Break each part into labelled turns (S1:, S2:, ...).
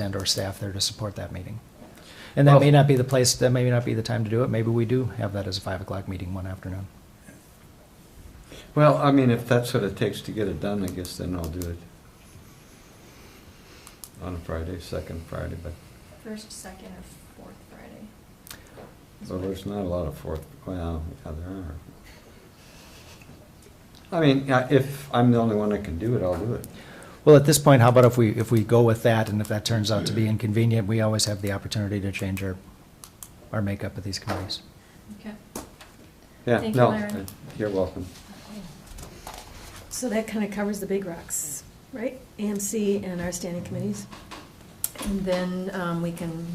S1: and or staff there to support that meeting. And that may not be the place, that may not be the time to do it. Maybe we do have that as a five o'clock meeting one afternoon.
S2: Well, I mean, if that's what it takes to get it done, I guess then I'll do it. On a Friday, second Friday, but,
S3: First, second, or fourth Friday.
S2: well, there's not a lot of fourth, well, yeah, there are. I mean, I- if I'm the only one that can do it, I'll do it.
S1: Well, at this point, how about if we, if we go with that and if that turns out to be inconvenient, we always have the opportunity to change our, our makeup of these committees.
S3: Okay.
S2: Yeah,
S3: Thank you,
S2: no, uh,
S3: Larry.
S2: you're welcome.
S4: So that kind of covers the big rocks, right? AMC and our standing committees. And then um, we can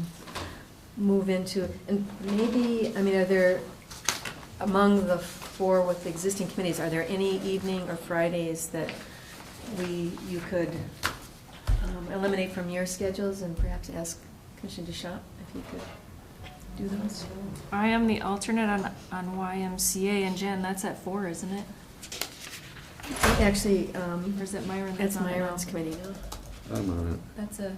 S4: move into, and maybe, I mean, are there, among the four with the existing committees, are there any evening or Fridays that we, you could um, eliminate from your schedules and perhaps ask Commissioner Deschamps if he could do those?
S5: I am the alternate on, on YMCA, and Jan, that's at four, isn't it?
S4: Actually, um,
S5: Or is it Myron that's
S4: that's
S5: on it now?
S4: Myron's committee now.
S2: I'm on it.
S5: That's a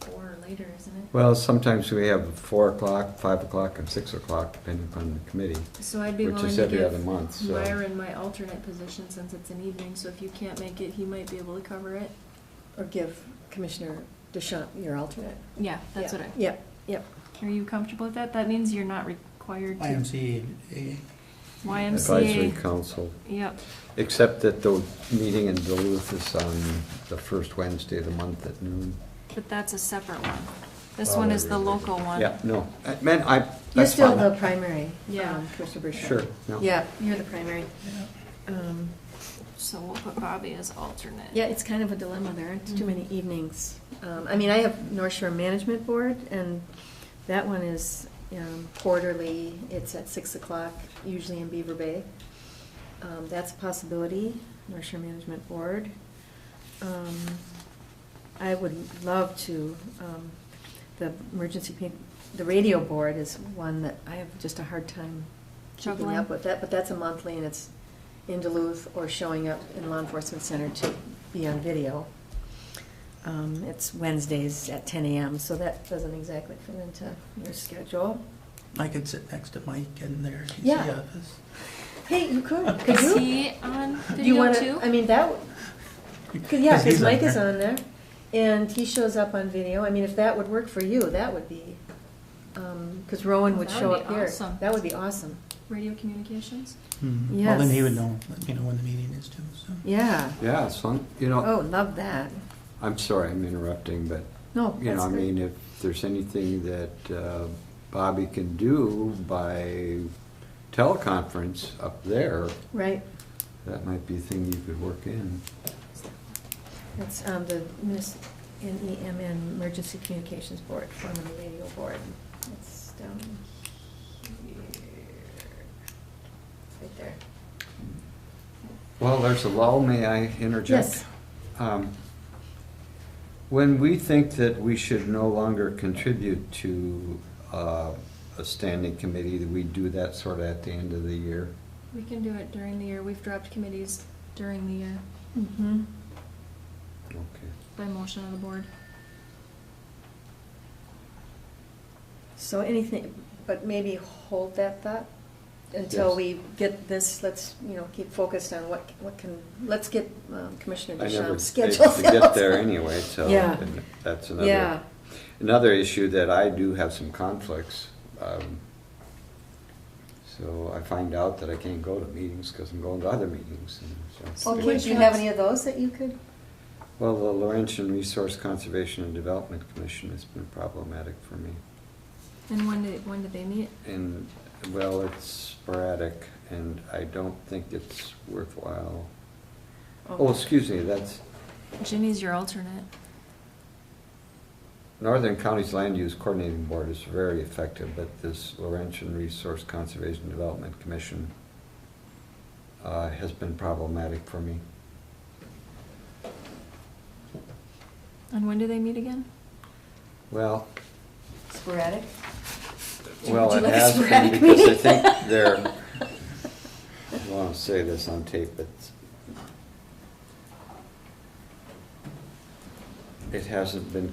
S5: four or later, isn't it?
S2: Well, sometimes we have four o'clock, five o'clock, and six o'clock, depending upon the committee.
S5: So I'd be
S2: Which
S5: willing
S2: is
S5: to
S2: every other
S5: give
S2: month, so-
S5: Myron my alternate position since it's an evening, so if you can't make it, he might be able to cover it.
S4: Or give Commissioner Deschamps your alternate.
S5: Yeah, that's what I,
S4: Yep, yep.
S5: are you comfortable with that? That means you're not required to.
S6: IMC,
S2: Advisory
S5: YMCA,
S2: Council.
S5: yep,
S2: Except that the meeting in Duluth is on the first Wednesday of the month at noon.
S5: but that's a separate one. This
S2: Well,
S5: one
S2: there
S5: is the
S2: really
S5: local one.
S2: Yeah, no, I- man, I,
S4: You're
S2: that's
S4: still
S2: fine.
S4: the primary.
S5: Yeah.
S4: um, Commissioner Bruchard.
S2: Sure, no.
S4: Yeah, you're the primary. Um,
S5: So we'll put Bobby as alternate.
S4: Yeah, it's kind of a dilemma. There aren't too many evenings. Um, I mean, I have North Shore Management Board, and that one is um, quarterly. It's at 6 o'clock, usually in Beaver Bay. Um, That's a possibility, North Shore Management Board. Um, I would love to, um, the emergency, pe- the radio board is one that I have just a hard time keeping
S5: Juggling.
S4: up with that, but that's a monthly and it's in Duluth or showing up in Law Enforcement Center to be on video. Um, It's Wednesdays at ten AM, so that doesn't exactly fit into your schedule.
S6: I could sit next to Mike in there. he's the
S4: Yeah.
S6: office.
S4: Hey, you could, could
S5: Is
S4: you?
S5: he on
S4: Do you
S5: video
S4: wanna-
S5: too?
S4: I mean, that, would- Cause, yeah, because
S6: he's
S4: Mike is
S6: there.
S4: on there, and he shows up on video. I mean, if that would work for you, that would be, because Rowan would
S5: That
S4: show
S5: would
S4: up
S5: be
S4: here.
S5: awesome.
S4: That would be awesome.
S5: Radio communications?
S6: Hmm. Well, then he would
S4: Yes.
S6: know, let me know when the meeting is too, so.
S4: Yeah.
S2: Yeah, as long, you know,
S4: Oh, love that.
S2: I'm sorry, I'm interrupting, but,
S4: No,
S2: you know,
S4: Oh, that's
S2: I
S4: great.
S2: mean, if there's anything that uh, Bobby can do by teleconference up there,
S4: Right.
S2: that might be a thing you could work in.
S4: That's um, the Miss NEMN Emergency Communications Board, formerly Radio Board. It's down here. Right there.
S2: Well, there's a lull, may I interject?
S4: Yes.
S2: Um, When we think that we should no longer contribute to uh, a standing committee, that we do that sort of at the end of the year.
S5: We can do it during the year. We've dropped committees during the year
S4: Mm-hmm.
S2: Okay.
S5: by motion of the board.
S4: So anything, but maybe hold that thought until
S2: Yes.
S4: we get this, let's, you know, keep focused on what, what can, let's get um, Commissioner
S2: I never
S4: Deschamps'
S2: schedule
S4: schedule.
S2: to get there anyway, so
S4: Yeah.
S2: and that's
S4: Yeah.
S2: another, another issue that I do have some conflicts. um, So I find out that I can't go to meetings because I'm going to other meetings. and so-
S4: Well, do you have any of those that you could?
S2: Well, the Laurentian Resource Conservation and Development Commission has been problematic for me.
S5: And when did, when did they meet?
S2: And, well, it's sporadic, and I don't think it's worthwhile. Oh, excuse me, that's
S5: Jimmy's your alternate.
S2: Northern Counties Land Use Coordinating Board is very effective, but this Laurentian Resource Conservation and Development Commission uh, has been problematic for me.
S5: And when do they meet again?
S2: Well,
S4: Sporadic?
S2: well,
S4: Would
S2: it
S4: you like a
S2: has been
S4: sporadic
S2: because I
S4: meeting?
S2: think they're, I want to say this on tape, but it hasn't been